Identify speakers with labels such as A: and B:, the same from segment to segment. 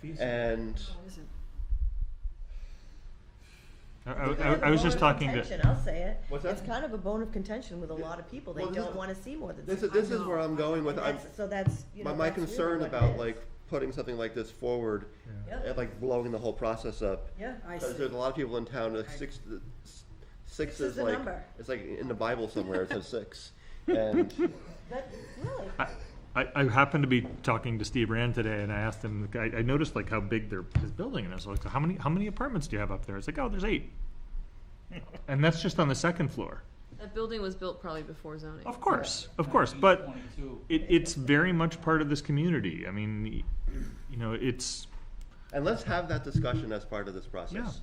A: fees.
B: Uh,
C: and
B: I, I, I was just talking
D: to.
B: to,
D: I'll say it.
C: What's
D: It's
C: that?
D: kind of a bone of contention with a lot of people. They
C: Well, this
D: don't
C: is-
D: wanna see more than
C: this
D: six.
C: is, this is where I'm going with,
D: And
C: I'm,
D: that's- So that's, you know,
C: my, my
D: that's really
C: concern
D: what it
C: about
D: is.
C: like putting something like this forward
D: Yeah.
C: and like blowing the whole process up.
D: Yeah,
A: I
C: Because
A: see.
C: there's a lot of people in town, like six, s- six is
D: Six is the
C: like,
D: number.
C: it's like in the Bible somewhere, it says six. And,
D: that, really,
B: I, I I happened to be talking to Steve Rand today and I asked him, I, I noticed like how big their, his building is. I was like, how many, how many apartments do you have up there? It's like, oh, there's eight. And that's just on the second floor.
E: That building was built probably before zoning.
B: Of course, of course, but
A: 22.
B: it, it's very much part of this community. I mean, you know, it's,
C: and let's have that discussion as part of this
B: Yeah.
C: process.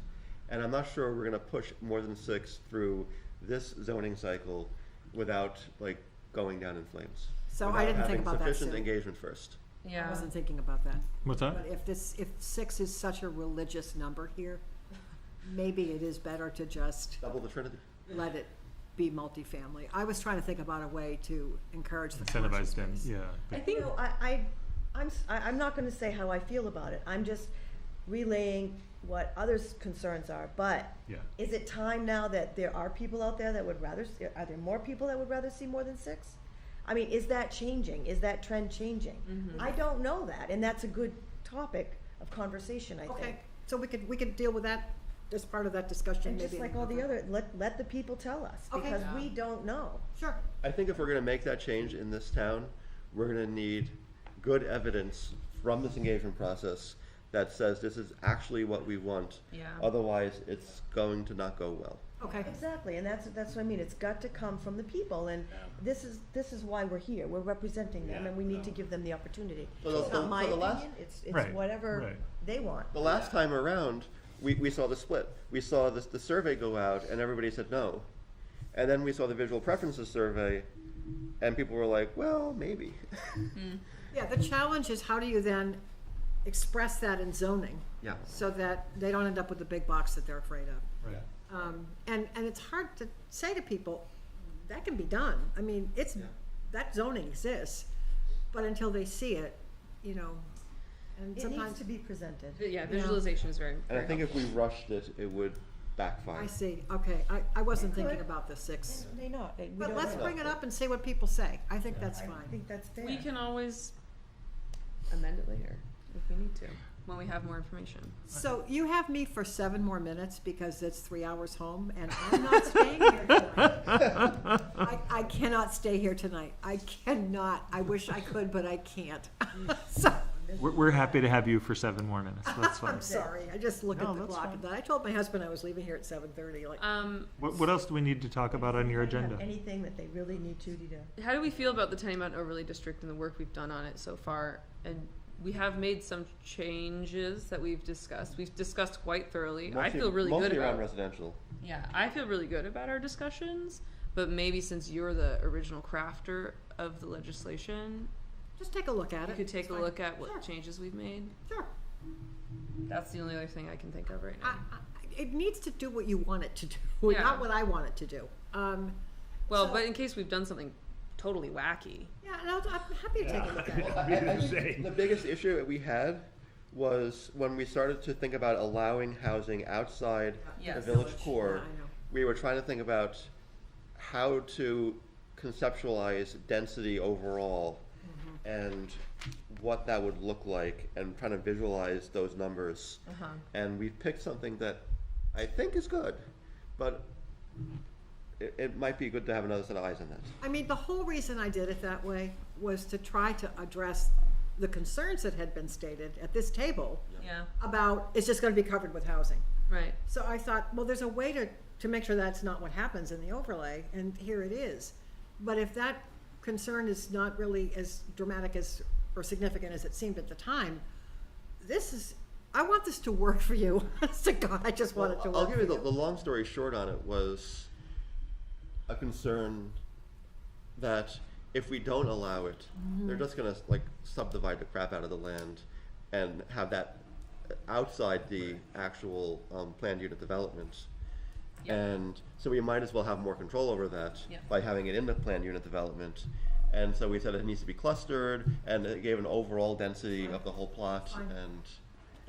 C: And I'm not sure we're gonna push more than six through this zoning cycle without like going down in flames.
A: So
C: Without
A: I didn't think
C: having
A: about that,
C: Sufficient
A: Sue.
C: engagement first.
A: I
E: Yeah.
A: wasn't thinking about that.
B: what's that?
A: But if this, if six is such a religious number here, maybe it is better to just
C: Double the Trinity.
A: let it be multifamily. I was trying to think about a way to encourage the commercial
B: Incentivized them,
A: space.
B: yeah.
D: I think I, I, I'm, s- I, am i am not gonna say how I feel about it. I'm just relaying what others' concerns are, but
B: Yeah.
D: is it time now that there are people out there that would rather, s- are there more people that would rather see more than six? I mean, is that changing? Is that trend changing? I don't know that, and that's a good topic of conversation, I
A: Okay,
D: think.
A: so we could, we could deal with that as part of that discussion
D: And
A: maybe.
D: just
A: in
D: like all the
A: another-
D: other, let, let the people tell us,
A: Okay.
D: because we
E: Yeah.
D: don't know.
A: Sure.
C: I think if we're gonna make that change in this town, we're gonna need good evidence from this engagement process that says this is actually what we want.
E: Yeah.
C: Otherwise, it's going to not go well.
A: Okay,
D: Exactly, and that's, that's what I mean, it's got to come from the people, and this is, this is why we're here, we're representing them, and we need to give them the opportunity.
C: So the-
D: It's
C: so-
D: not my
C: so the last-
D: opinion, it's, it's
B: Right,
D: whatever
B: right.
D: they want.
C: The last time around, we, we saw the split. We saw this, the survey go out and everybody said no. And then we saw the visual preferences survey and people were like, well, maybe.
A: yeah, the challenge is how do you then express that in zoning?
C: Yeah.
A: So that they don't end up with the big box that they're afraid of.
B: Right.
A: Um, and, and it's hard to say to people, that can be done. I mean, it's, that zoning exists, but until they see it, you know, and
D: It needs
A: sometimes,
D: to be presented.
E: But yeah, visualization is very.
C: And I
E: very
C: think if we rushed it, it would backfire.
A: I see, okay, I, I wasn't
D: It could.
A: thinking about the six.
D: May not, we
A: But
D: don't
A: let's
D: know.
A: bring it up and see what people say. I think that's
D: I
A: fine.
D: think that's fair.
E: helpful. We can always amend it later if we need to when we have more information.
A: So you have me for seven more minutes because it's three hours home and I'm not staying here tonight. I, I cannot stay here tonight. I cannot. I wish I could, but I can't. So,
B: We're, we're happy to have you for seven more minutes. That's fine.
A: I'm sorry. I just look
B: No,
A: at the
B: that's
A: clock and
B: fine.
A: I told my husband I was leaving here at seven thirty, like,
E: Um,
B: What, what else do we need to talk about on your
D: If they have
B: agenda?
D: Anything that they really need to do.
E: how do we feel about the Tiny Mountain Overlay District and the work we've done on it so far? And we have made some changes that we've discussed. We've discussed quite thoroughly. I
C: Mostly-
E: feel really good
C: Mostly around
E: about.
C: residential.
E: Yeah, I feel really good about our discussions. But maybe since you're the original crafter of the legislation,
A: just take a look at it.
E: you could take
A: It's
E: a
A: fine.
E: look at
A: Sure.
E: what changes we've made.
A: Sure.
E: That's the only other thing I can think of right
A: I,
E: now.
A: I, it needs to do what you want it to do,
E: Yeah.
A: not what I want it to do. Um,
E: Well,
A: So-
E: but in case we've done something totally wacky.
A: yeah, and I'll, I'm happy to take a look at it.
C: I- I think The biggest issue that we had was when we started to think about allowing housing outside the
E: Yes.
C: village core.
A: Uh, Yeah, I know.
C: We were trying to think about how to conceptualize density overall
A: Mm-hmm.
C: and what that would look like and trying to visualize those numbers.
A: Uh-huh.
C: And we picked something that I think is good, but it, it might be good to have another set of eyes on that.
A: I mean, the whole reason I did it that way was to try to address the concerns that had been stated at this table
E: Yeah.
A: about it's just going to be covered with housing.
E: Right.
A: So I thought, well, there's a way to, to make sure that's not what happens in the overlay, and here it is. But if that concern is not really as dramatic as, or significant as it seemed at the time, this is, I want this to work for you. Honest to God, I just want it to
C: Well,
A: work.
C: I'll give you
A: for
C: the, the long story short on it was a concern that if we don't allow it,
A: Mm-hmm.
C: they're just gonna like subdivide the crap out of the land and have that outside the actual um, planned unit development.
E: Yeah.
C: And so we might as well have more control over that
E: Yeah.
C: by having it in the planned unit development. And so we said it needs to be clustered, and it gave an overall density of the whole plot, and